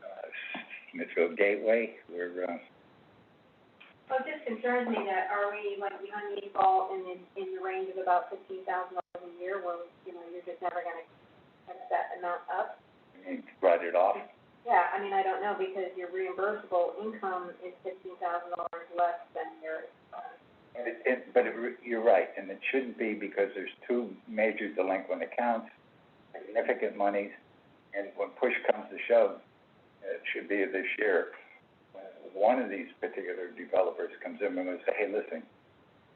uh, Smithfield Gateway, we're, uh, Well, it just concerns me that are we like behind the eight ball and in, in the range of about fifteen thousand dollars a year where, you know, you're just never gonna catch that amount up? we brought it off. Yeah, I mean, I don't know because your reimbursable income is fifteen thousand dollars less than your, uh, And it, it, but it, re- you're right, and it shouldn't be because there's two major delinquent accounts, significant monies, and when push comes to shove, it should be this year. when One of these particular developers comes in and will say, hey, listen,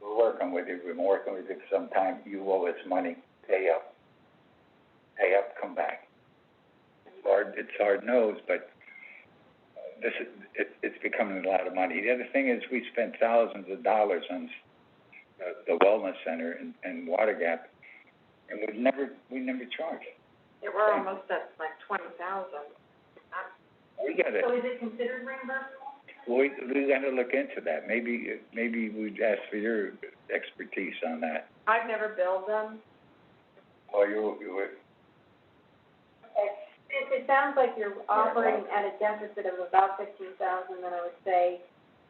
we're working with you, we've been working with you for some time, you owe us money, pay up. Pay up, come back. It's hard, it's hard nosed, but uh, this is, it, it's becoming a lot of money. The other thing is, we spent thousands of dollars on, uh, the wellness center in, in Water Gap, and we've never, we never charged. Yeah, we're almost at like twenty thousand. We gotta, so is it considered reimbursable? we, we gotta look into that. Maybe, maybe we'd ask for your expertise on that. I've never billed them. Or you, you, would- Okay, since it sounds like you're operating at a deficit of about fifteen thousand, then I would say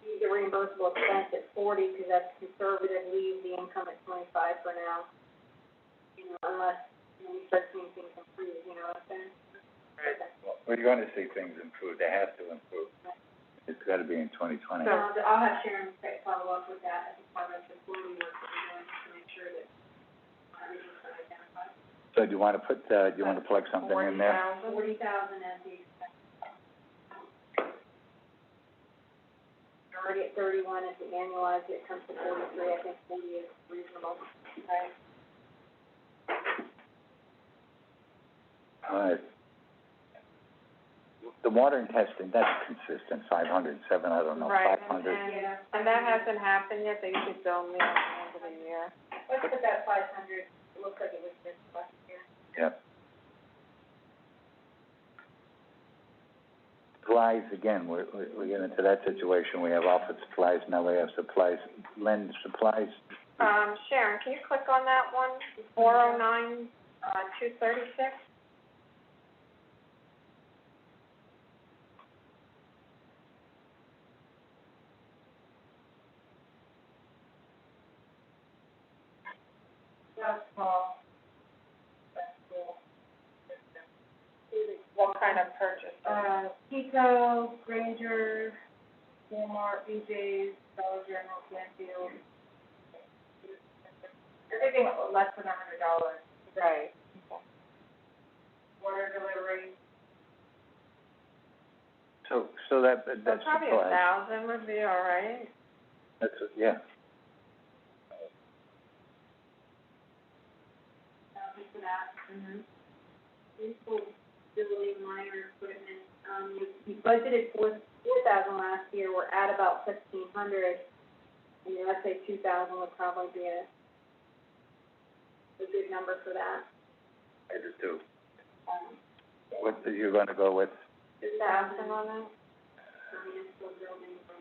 leave the reimbursable expense at forty, because that's conservative, leave the income at twenty-five for now. You know, unless, you know, we start seeing things improve, you know what I'm saying? we're gonna see things improve. They have to improve. It's gotta be in twenty twenty. So I'll, uh, I'll have Sharon fa- follow up with that as part of the forty work that we're doing to make sure that everything's identified. So do you wanna put, uh, do you wanna plug something in there? Forty Forty thousand. thousand as the expense. Already at thirty-one, if we annualize it, it comes to forty-three, I think forty is reasonable, right? All right. The water and testing, that's consistent, five hundred, seven, I don't know, Right, five and, hundred. and, and that hasn't happened yet, they usually bill me at the end of the year. Let's put that five hundred, it looks like it was this last year. Yep. Supplies, again, we're, we're, we get into that situation, we have office supplies, now we have supplies, Lynn, supplies, Um, Sharon, can you click on that one, four oh nine, uh, two thirty-six? That's small. That's cool. What kind of purchase? Uh, Pico, Granger, Walmart, BJ's, Dollar General, Canfield. Everything less than a hundred dollars, Right. order delivery. so, so that, So that's probably a supplies. thousand would be all right. That's, yeah. Um, for that, Mm-hmm. useful facility, minor equipment, um, you, you budgeted four, four thousand last year, we're at about fifteen hundred. I mean, I'd say two thousand would probably be a, a good number for that, I just do. um, What, are you gonna go with? two Thousand thousand on that? for municipal building for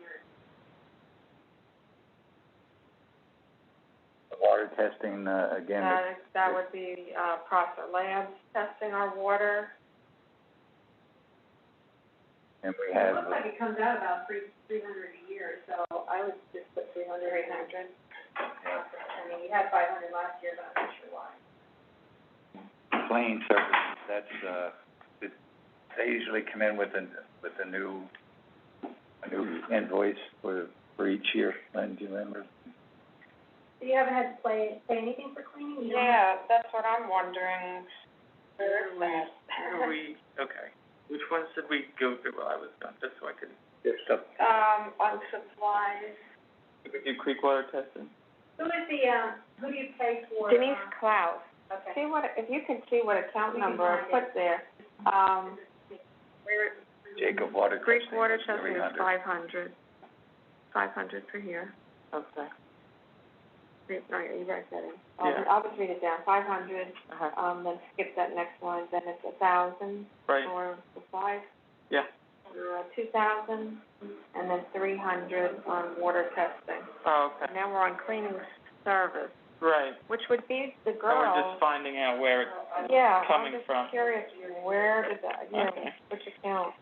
Water testing, uh, again, That, that would be, uh, Prosser Labs testing our water. and we It have, looks like it comes out about three, three hundred a year, so I would just put three hundred, eight hundred. I mean, you had five hundred last year, but I'm not sure why. plane services, that's, uh, it- they usually come in with a, with a new, a new invoice for, for each year, Lynn, do you remember? So you haven't had to play, pay anything for cleaning? You don't have Yeah, that's what I'm wondering. Where is that? Where do we, okay, which ones did we go through while I was gone, just so I could? There's stuff Um, on supplies. We do creek water testing? Who is the, um, who do you pay for? Denise um, Klaus. Okay. See what, if you can see what account We can number I find put there, um, Where, Jacob Water Greek Testing water was testing is 300. five hundred. Five hundred per year. Okay. Greek, all right, you guys got it. I'll, Yeah. I'll just read it down, five hundred, Uh-huh. um, then skip that next one, then it's a thousand Right, for supplies. Yeah. Uh, two thousand, and then three hundred on water testing. oh, okay, And now we're on cleaning service, right, which would be the so girl. we're just finding out where it's Yeah, I'm coming just from. curious, where did that, you know, Okay. which account?